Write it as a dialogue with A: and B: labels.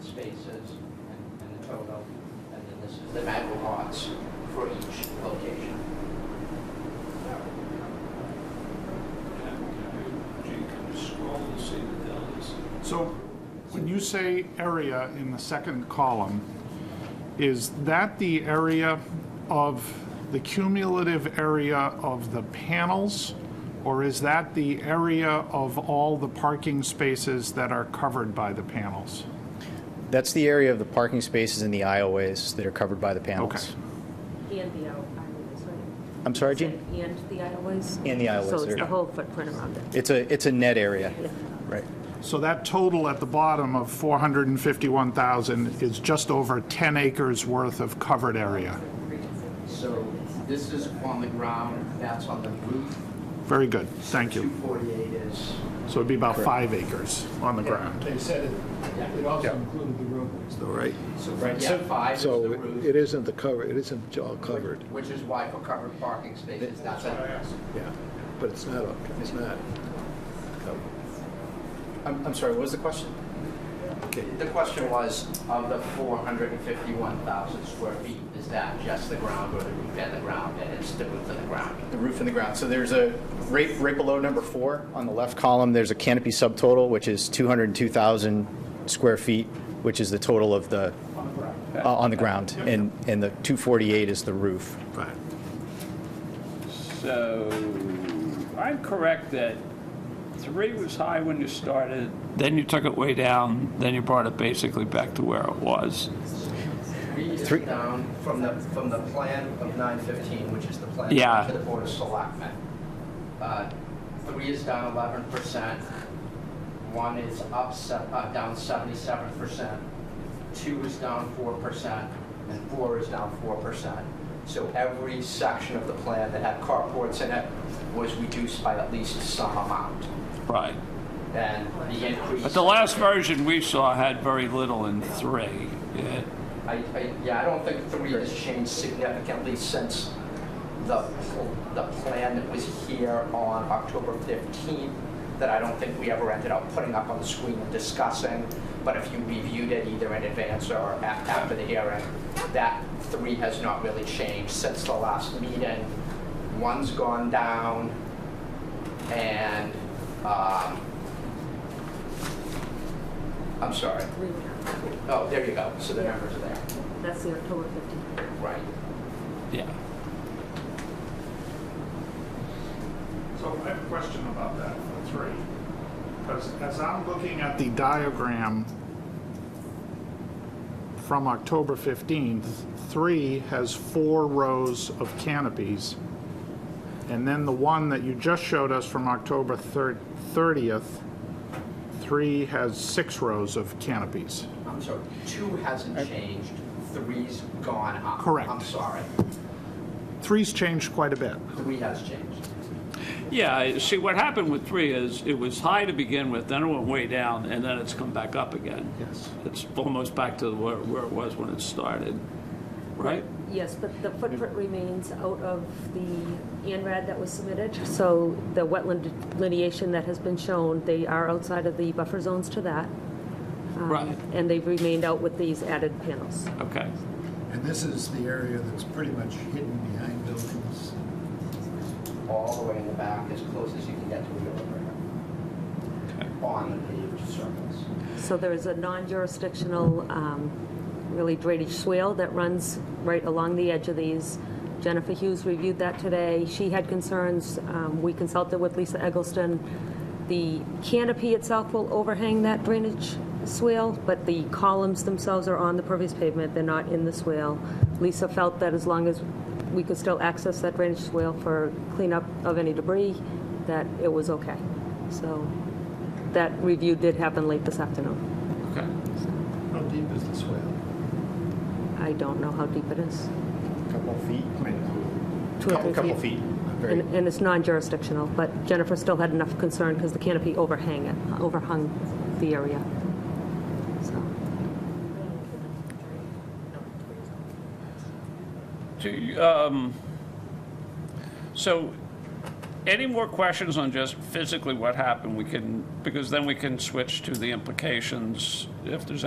A: spaces and- and the total, and then this is the map lots for each location.
B: Gee, can you scroll and see the Dallas?
C: So when you say area in the second column, is that the area of, the cumulative area of the panels? Or is that the area of all the parking spaces that are covered by the panels?
D: That's the area of the parking spaces and the aisleways that are covered by the panels.
C: Okay.
E: And the aisle- aisleways, right?
D: I'm sorry, Gene?
E: And the aisleways?
D: And the aisleways,
E: So it's
D: yeah.
E: the whole footprint around it.
D: It's a, it's a net area,
E: Yeah.
D: right?
C: So that total at the bottom of 451,000 is just over 10 acres worth of covered area.
A: So this is on the ground, that's on the roof.
C: Very good, thank you.
A: 248 is,
C: So it'd be about five acres on the ground.
F: They said it, it also included the roadways.
G: All right.
A: so yeah, five is the
G: So
A: roof,
G: it isn't the cover, it isn't all covered,
A: which is why for covered parking spaces, that's it.
G: yeah, but it's not, it's not. covered.
D: I'm, I'm sorry, what was the question?
A: The question was, of the 451,000 square feet, is that just the ground or the roof and the ground, and it's the roof and the ground?
D: The roof and the ground. So there's a, right, right below number four, on the left column, there's a canopy subtotal, which is 202,000 square feet, which is the total of the, uh, on the ground. And, and the 248 is the roof.
G: Right.
B: So, I'm correct that three was high when you started, then you took it way down, then you brought it basically back to where it was.
A: Three is
D: Three-
A: down from the, from the plan of 915, which is the plan
B: Yeah.
A: to the Board of Selectmen. Uh, Three is down 11%, one is up, se- uh, down 77%, two is down 4%, and four is down 4%. So every section of the plan that had carports in it was reduced by at least some amount.
B: Right.
A: And the increase.
B: But the last version we saw had very little in three. It-
A: I, I, yeah, I don't think three has changed significantly since the, pl- the plan that was here on October 15th, that I don't think we ever ended up putting up on the screen and discussing, but if you reviewed it either in advance or a- after the hearing, that three has not really changed since the last meeting. One's gone down, and, um, I'm sorry.
E: Three and a half.
A: Oh, there you go, so the numbers are there.
E: That's the October 15th.
A: Right.
B: Yeah.
C: So I have a question about that for three, because as I'm looking at the diagram from October 15th, three has four rows of canopies, and then the one that you just showed us from October thir- 30th, three has six rows of canopies.
A: I'm sorry, two hasn't changed, three's gone up.
C: Correct.
A: I'm sorry,
C: Three's changed quite a bit.
A: three has changed.
B: Yeah, I- see, what happened with three is, it was high to begin with, then it went way down, and then it's come back up again.
C: Yes.
B: It's almost back to where, where it was when it started, right?
E: Yes, but the footprint remains out of the ANRAD that was submitted. So the wetland delineation that has been shown, they are outside of the buffer zones to that. um,
B: Right.
E: And they've remained out with these added panels.
B: Okay.
F: And this is the area that's pretty much hidden behind buildings.
A: All the way in the back, as close as you can get to a millimeter. On the paved surface.
E: So there is a non-jurisdictional, um, really drainage swale that runs right along the edge of these. Jennifer Hughes reviewed that today. She had concerns. Um, We consulted with Lisa Eggleston. The canopy itself will overhang that drainage swale, but the columns themselves are on the pervious pavement. They're not in the swale. Lisa felt that as long as we could still access that drainage swale for cleanup of any debris, that it was okay. So that review did happen late this afternoon.
B: Okay.
F: How deep is the swale?
E: I don't know how deep it is.
D: Couple of feet?
E: Two or
D: Couple,
E: three
D: couple feet. Very-
E: And and it's non-jurisdictional, but Jennifer still had enough concern because the canopy overhang it, overhung the area. So,
B: Do you, um, so, any more questions on just physically what happened? We can, because then we can switch to the implications, if there's any.